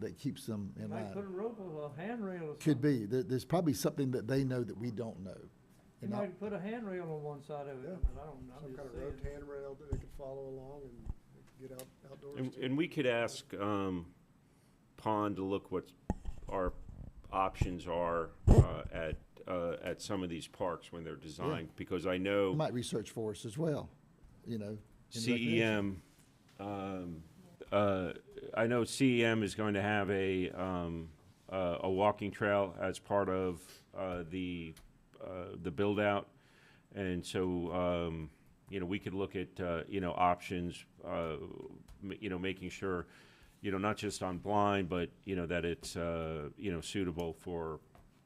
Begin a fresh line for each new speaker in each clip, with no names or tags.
that keeps them in
Might put a
line.
rope or a handrail or something.
Could be, there, there's probably something that they know that we don't know.
You
And I-
might put a handrail on one side of it,
Yeah.
but I don't, I'm
Some kind
just
of road
saying.
handrail that they could follow along and they could get out, outdoors.
And,
too.
and we could ask, um, Pond to look what our options are, uh, at, uh, at some of these parks when they're designed, because I know.
Might research for us as well, you know. in
E
recognition.
CEM, um, uh, I know CEM is going to have a, um, uh, a walking trail as part of, uh, the, uh, the build-out. And so, um, you know, we could look at, uh, you know, options, uh, m- you know, making sure, you know, not just on blind, but, you know, that it's, uh, you know, suitable for,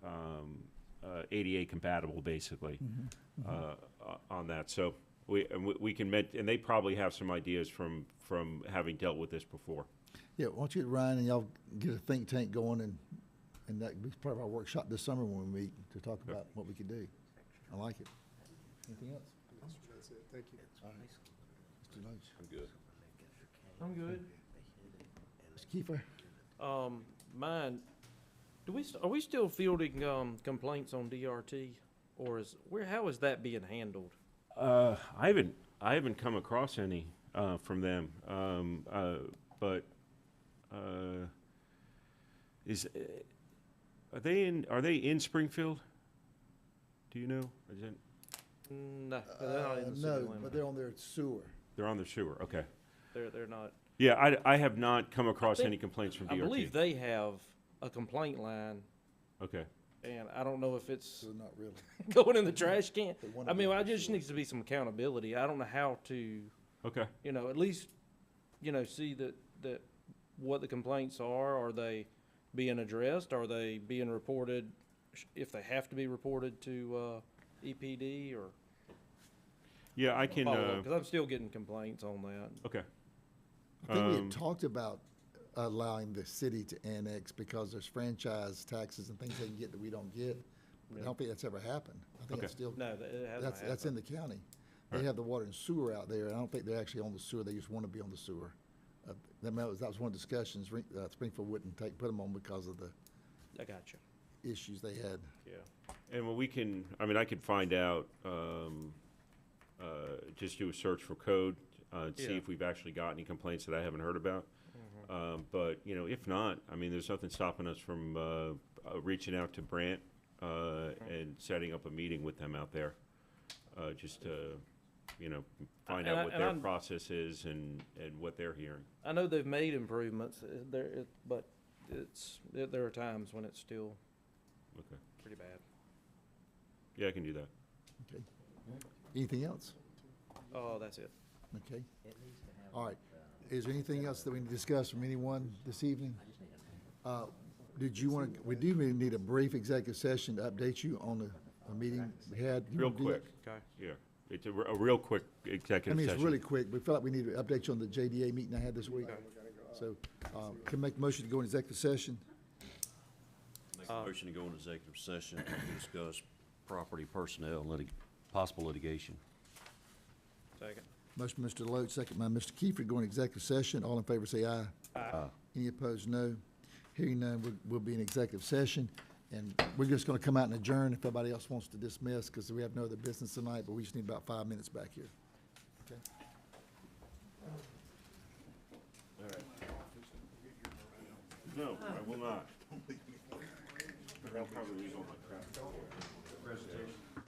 um, uh, ADA compatible, basically, uh, o- on that. So we, and we- we can, met- and they probably have some ideas from, from having dealt with this before.
Yeah, why don't you, Ryan, and y'all get a think tank going and, and that be part of our workshop this summer when we meet to talk about what we could do. I like it. Anything else?
That's- That's it, thank you.
Mr. Loach?
I'm good.
Mr. Kiefer?
Um, mine, do we, st- are we still fielding, um, complaints on DRT? Or is, where, how is that being handled?
Uh, I haven't, I haven't come across any, uh, from them, um, uh, but, uh, is, uh, are they in, are they in Springfield? Do you know? Is it,
No, they're not in the city
Uh, No, but
limits.
they're on their sewer.
they're on the sewer, okay.
They're, they're not.
Yeah, I, I have not come across
think-
any complaints from
I believe
DRT.
they have a complaint line,
Okay,
and I don't know if it's
So not really.
going in the trash can.
But one
I
of
mean,
them
I
is
just
sure.
needs to be some accountability. I don't know how to,
okay.
you know, at least, you know, see that, that what the complaints are. Are they being addressed? Are they being reported, sh- if they have to be reported to, uh, EPD or
Yeah, I can,
follow
uh,
Because I'm still getting complaints on that.
okay.
I think we
Um,
had talked about allowing the city to annex because there's franchise taxes and things they can get that we don't get. But I don't think that's ever happened. I think
Okay.
it's still,
No, that- it hasn't
that's, that's in the county. They have the water and sewer out there. and I don't think they're actually on the sewer. They just want to be on the sewer. Uh, That was, that was one of the discussions, Ring- uh, Springfield wouldn't take, put them on because of the
happened. I got you.
issues they had.
Yeah.
And well, we can, I mean, I could find out, um, uh, just do a search for code, uh, and see
Yeah. Mm-hmm.
if we've actually got any complaints that I haven't heard about. Um, but, you know, if not, I mean, there's nothing stopping us from, uh, uh, reaching out to Brant, uh,
Mm-hmm.
and setting up a meeting with them out there. Uh, just to, you know, find
And I-
out what
and
their
I'm-
process is and, and what they're hearing.
I know they've made improvements uh, there, it- but it's, there there are times when it's still
Okay.
pretty bad.
Yeah, I can do that.
Anything else?
Oh, that's it.
Okay. All right. Is there anything else that we need to discuss from anyone this evening? Uh, Did you want to, we do really need a brief executive session to update you on the, a meeting we had. You
Real
wanna do that?
quick,
Okay.
yeah. It's a, r- a real quick
I
executive
mean, it's
session.
really quick. We felt like we need to update you on the JDA meeting I had this week. So, uh, can I make a motion to go into executive session?
Make
Uh,
a motion to go into executive session to discuss property personnel, and litig, possible litigation.
Second.
Motion by Mr. Loach, second by Mr. Kiefer, to go into executive session. All in favor, say aye.
Aye.
Any opposed, no. Hearing none, we'll- we'll be in executive session, and we're just going to come out and adjourn if anybody else wants to dismiss, because we have no other business tonight, but we just need about five minutes back here. Okay?
No, I will not. I'll probably lose all my crap.